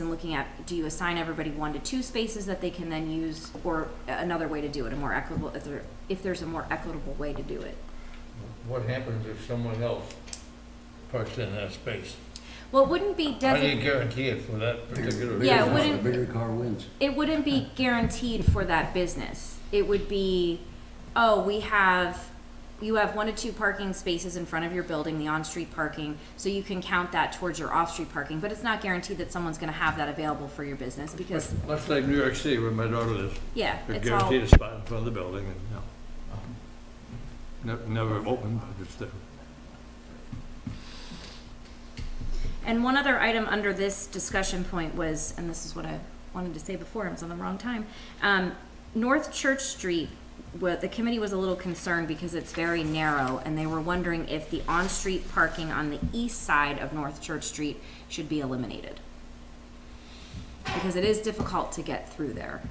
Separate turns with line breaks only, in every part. and looking at, do you assign everybody one to two spaces that they can then use? Or another way to do it, a more equitable, if there, if there's a more equitable way to do it.
What happens if someone else parks in that space?
Well, it wouldn't be
How do you
designated,
guarantee it for that particular?
Yeah, it
business?
wouldn't-
The bigger car wins.
it wouldn't be guaranteed for that business. It would be, oh, we have, you have one to two parking spaces in front of your building, the on-street parking, so you can count that towards your off-street parking, but it's not guaranteed that someone's gonna have that available for your business, because,
Much like New York City where my daughter lives,
yeah,
they're
it's all,
guaranteed a spot in front of the building and, no. Ne- Never open, but it's there.
And one other item under this discussion point was, and this is what I wanted to say before, I was on the wrong time. Um, North Church Street, wa- the committee was a little concerned because it's very narrow, and they were wondering if the on-street parking on the east side of North Church Street should be eliminated. Because it is difficult to get through there.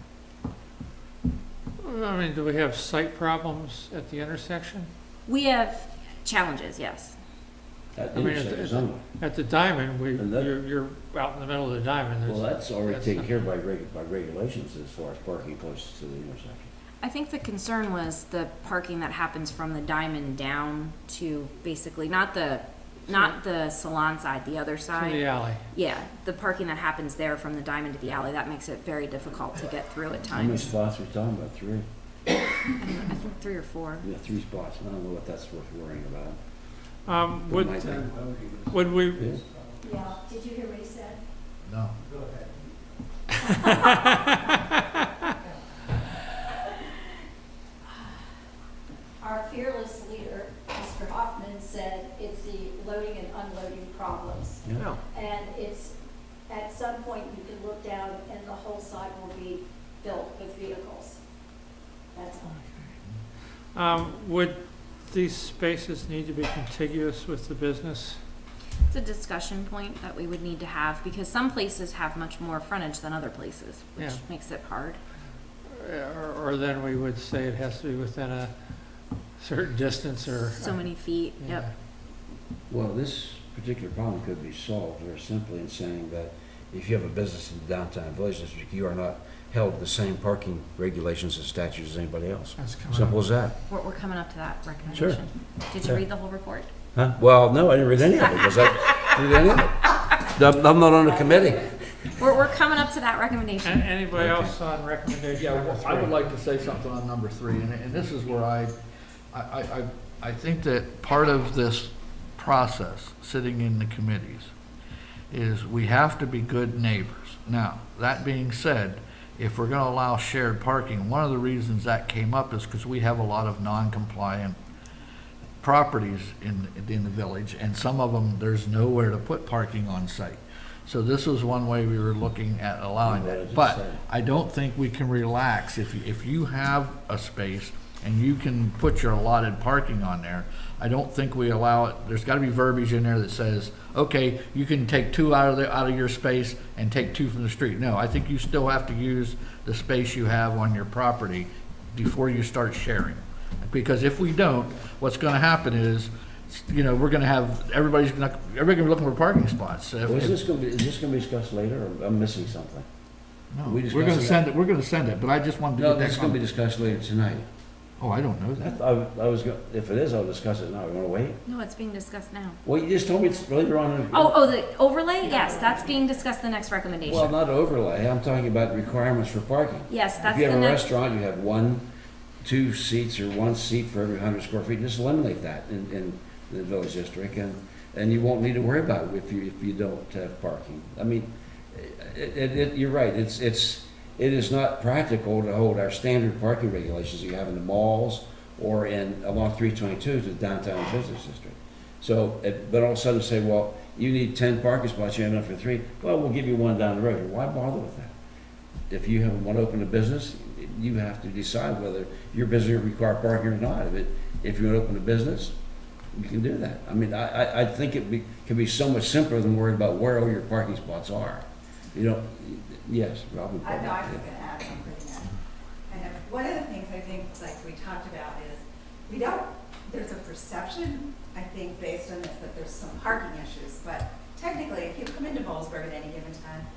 I mean, do we have sight problems at the intersection?
We have challenges, yes.
That
I mean, it's-
intersection's
it's-
on,
At the diamond, we,
And that-
you're, you're out in the middle of the diamond,
well,
there's,
that's already
that's
taken
not-
care of by reg, by regulations as far as parking close to the intersection.
I think the concern was the parking that happens from the diamond down to basically, not the, not the salon side, the other
to the
side.
alley.
Yeah, the parking that happens there from the diamond to the alley, that makes it very difficult to get through at
How many
times.
spots are we talking about? Three?
I think three or four.
Yeah, three spots. I don't know what that's worth worrying about.
Um, would,
Might be.
uh, would we,
Yeah.
Yeah, did you hear what he said? No. Our fearless leader, Mr. Hoffman, said it's the loading and unloading problems.
Yeah.
no,
And it's, at some point, you can look down and the whole side will be filled with vehicles. That's all.
um, would these spaces need to be contiguous with the business?
It's a discussion point that we would need to have, because some places have much more frontage than other places, which
Yeah.
makes it hard.
Or, or then we would say it has to be within a certain distance or.
So many feet,
Yeah.
yep.
Well, this particular problem could be solved very simply in saying that if you have a business in the downtown village district, you are not held to the same parking regulations and statutes as anybody else.
That's coming up.
Simple as that.
We're, we're coming up to that recommendation. Did you
Yeah.
read the whole report?
Huh? Well, no, I didn't read any of it because I didn't read any of it. I'm- I'm not on the committee.
We're, we're coming up to that recommendation.
A- Anybody else on recommendation?
Yeah,
number
well, I would
three?
like to say something on number three, and, and this is where I, I, I, I- I think that part of this process, sitting in the committees, is we have to be good neighbors. Now, that being said, if we're gonna allow shared parking, one of the reasons that came up is because we have a lot of non-compliant properties in, in the village, and some of them, there's nowhere to put parking on site. So this was one way we were looking at allowing that. But I don't think we can relax. If, you- if you have a space and you can put your allotted parking on there, I don't think we allow it, there's gotta be verbiage in there that says, okay, you can take two out of the, out of your space and take two from the street. No, I think you still have to use the space you have on your property before you start sharing. Because if we don't, what's gonna happen is, you know, we're gonna have, everybody's gonna, everybody's gonna be looking for parking spots. If-
Well, is this gonna be, is this gonna be discussed later, or I'm missing something?
No,
We
we're gonna
discussing
send it, we're gonna send it, but I just wanted to get that.
It's gonna be
comment.
discussed later tonight.
Oh, I don't know
I,
that.
I was gonna, if it is, I'll discuss it now, you wanna wait?
No, it's being discussed now.
Well, you just told me it's later on. in-
Oh, oh, the overlay? Yes, that's being discussed the next
Well,
recommendation.
not overlay, I'm talking about requirements for parking.
Yes, that's
If
the
you have a
next.
restaurant, you have one, two seats, or one seat for every hundred square feet, just eliminate that in, in the village district, and, and you won't need to worry about it if you, if you don't have parking. I mean, it, it, it- you're right, it's, it's, it is not practical to hold our standard parking regulations you have in the malls or in, along three twenty-two to the downtown business district. So, it- but all of a sudden say, well, you need ten parking spots, you have enough for three, well, we'll give you one down the road, why bother with that? if you have, want to open a business, you have to decide whether your business require parking or not. If it, if you want to open a business, you can do that. I mean, I, I, I think it be, can be so much simpler than worrying about where all your parking spots are. You know, yes, Robin.
I know, I was gonna add something to that. Kind of, one of the things I think, like we talked about is, we don't, there's a perception, I think, based on this, that there's some parking issues, but technically, if you come into Bollesburg at any given time,